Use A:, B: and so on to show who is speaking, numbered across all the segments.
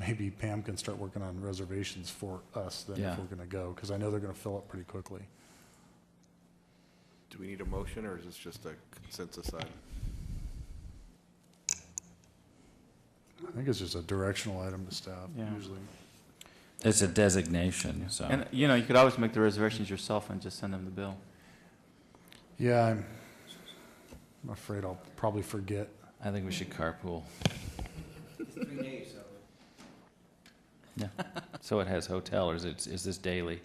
A: maybe Pam can start working on reservations for us then
B: Yeah.
A: if we're going to go, because I know they're going to fill up pretty quickly.
C: Do we need a motion, or is this just a consensus item?
A: I think it's just a directional item to staff
D: Yeah.
A: usually.
B: It's a designation, so.
D: And, you know, you could always make the reservations yourself and just send them the bill.
A: Yeah, I'm I'm afraid I'll probably forget.
B: I think we should carpool. Three days, so. Yeah, so it has hotel, or is it, is this daily?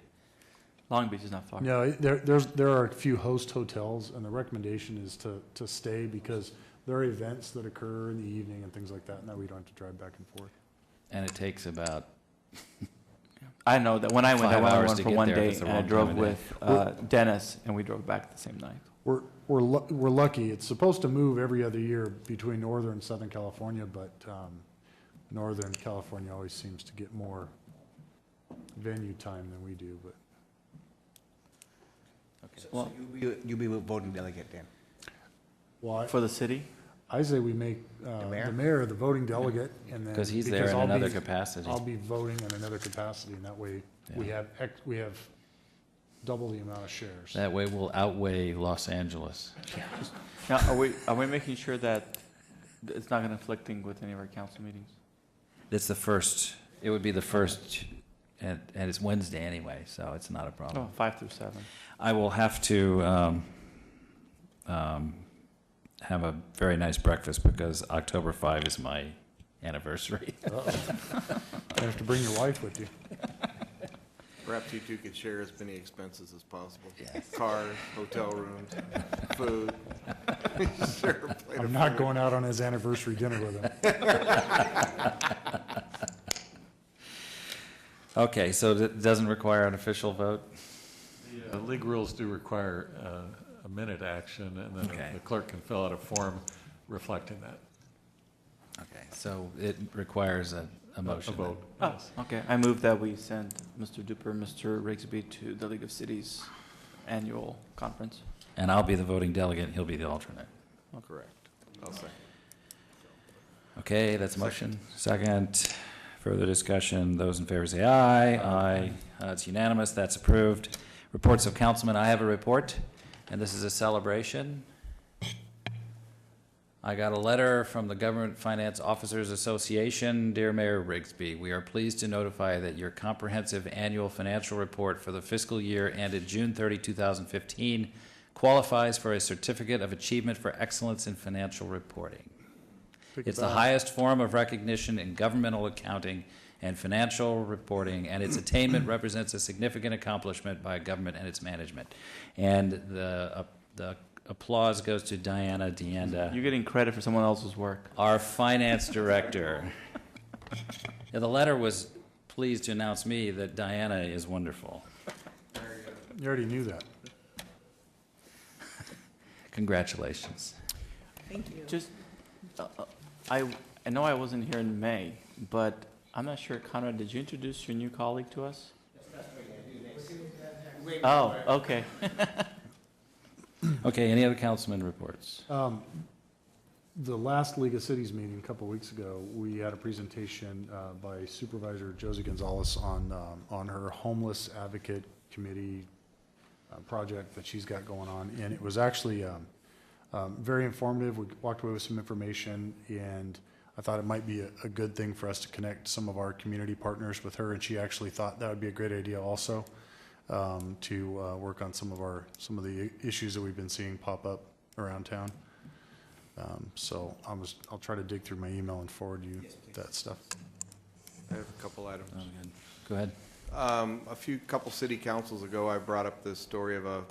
D: Long Beach is not far.
A: No, it- there, there's, there are a few host hotels, and the recommendation is to, to stay because there are events that occur in the evening and things like that, and that we don't have to drive back and forth.
B: And it takes about,
D: I know that when I went, I
B: Five
D: went I
B: hours
D: went
B: to
D: for
B: get
D: one
B: there if
D: day
B: it's the
D: and I
B: wrong
D: drove
B: time of day.
D: with uh, Dennis and we drove back the same night.
A: We're, we're, lu- we're lucky. It's supposed to move every other year between Northern and Southern California, but, um, Northern California always seems to get more venue time than we do, but
D: Well,
E: You- You'll be voting delegate then.
A: why?
D: for the city,
A: I say we make, uh,
E: The mayor?
A: the mayor, the voting delegate, and then.
B: because he's there in
A: I'll be-
B: another capacity.
A: I'll be voting in another capacity, and that way, we
B: Yeah.
A: have, ex- we have double the amount of shares.
B: That way we'll outweigh Los Angeles.
D: now are we are we making sure that it's not conflicting with any of our council meetings?
B: It's the first, it would be the first, and, and it's Wednesday anyway, so it's not a problem.
D: Oh, five through seven.
B: I will have to um, um, have a very nice breakfast because October 5 is my anniversary.
A: Uh-oh. You have to bring your wife with you.
C: Perhaps you two could share as many expenses as possible.
B: Yes.
C: Cars, hotel rooms, food. Share a plate
A: I'm
C: of
A: not
C: food.
A: going out on his anniversary dinner with him.
B: Okay, so it doesn't require an official vote?
F: The league rules do require uh, a minute action, and
B: Okay.
F: then the clerk can fill out a form reflecting that.
B: Okay, so it requires a, a motion.
F: A
B: then.
F: vote.
D: Oh, okay. I move that we send Mr. Duper and Mr. Rigsby to the League of Cities annual conference.
B: And I'll be the voting delegate, he'll be the alternate.
C: Correct. I'll second.
B: Okay, that's a motion. Second, further discussion, those in favor say aye. Aye. Uh, It's unanimous, that's approved. Reports of councilmen, I have a report, and this is a celebration. I got a letter from the Government Finance Officers Association. Dear Mayor Rigsby, we are pleased to notify that your comprehensive annual financial report for the fiscal year ended June 30, 2015 qualifies for a Certificate of Achievement for Excellence in Financial Reporting. It's the highest form of recognition in governmental accounting and financial reporting, and its attainment represents a significant accomplishment by government and its management. And the, uh, the applause goes to Diana
D: You're
B: Deanda,
D: getting credit for someone else's work.
B: our finance director. Yeah, the letter was pleased to announce me that Diana is wonderful.
A: You already knew that.
B: Congratulations.
G: Thank you.
D: Just, uh, uh, I, I know I wasn't here in May, but I'm not sure, Conrad, did you introduce your new colleague to us? Oh, okay.
B: Okay, any other councilman reports?
A: Um, The last League of Cities meeting a couple weeks ago, we had a presentation uh, by Supervisor Josie Gonzalez on, um, on her homeless advocate committee uh, project that she's got going on, and it was actually um, um, very informative. We walked away with some information, and I thought it might be a, a good thing for us to connect some of our community partners with her, and she actually thought that would be a great idea also um, to uh, work on some of our, some of the issues that we've been seeing pop up around town. Um, So I was, I'll try to dig through my email and forward you that stuff.
C: I have a couple items.
B: Go ahead.
C: Um, a few, couple city councils ago, I brought up the story of a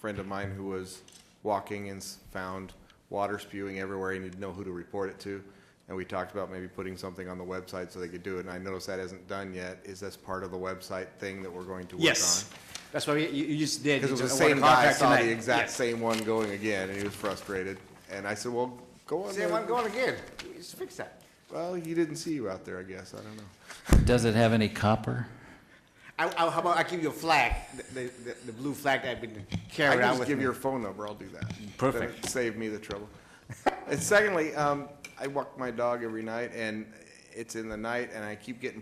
C: friend of mine who was walking and s- found water spewing everywhere, and he didn't know who to report it to. And we talked about maybe putting something on the website so they could do it, and I noticed that isn't done yet. Is this part of the website thing that we're going to work on?
E: Yes, that's why we- you, you just did.
C: Because it was the
E: It's one
C: same guy, I
E: contract
C: saw
E: tonight.
C: the exact
E: Yes.
C: same one going again, and he was frustrated. And I said, well, go on
E: Same one
C: there.
E: going again. Just fix that.
C: Well, he didn't see you out there, I guess, I don't know.
B: Does it have any copper?
E: I, I, how about I give you a flag, the, the, the blue flag that I've been
C: I
E: carrying
C: can
E: around
C: just
E: with
C: give
E: me.
C: your phone number, I'll do that.
B: Perfect.
C: That'd Save me the trouble. And secondly, um, I walk my dog every night, and it's in the night, and I keep getting